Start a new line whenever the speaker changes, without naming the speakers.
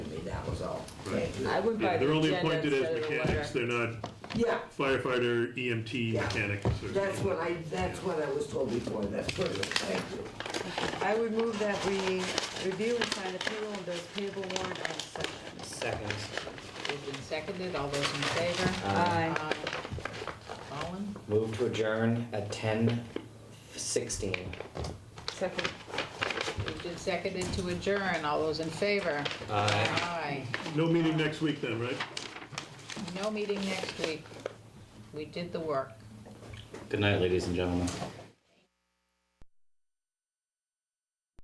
Right.
I went by
Yeah,
the
they're only
agenda
appointed as
instead of the letter.
mechanics, they're not
Yeah,
firefighter, EMT,
Yeah.
mechanics. or-
that's what I, that's what I was told before, that's perfect, thank you.
I would move that we review and sign the payroll and those payable warrant as such.
Second.
Moved and seconded, all those in favor?
Aye.
Aye. Colin?
Move to adjourn at ten sixteen.
Second.
Moved and seconded to adjourn, all those in favor?
Aye.
Aye.
No meeting next week then, right?
No meeting next week. We did the work.
Good night, ladies and gentlemen.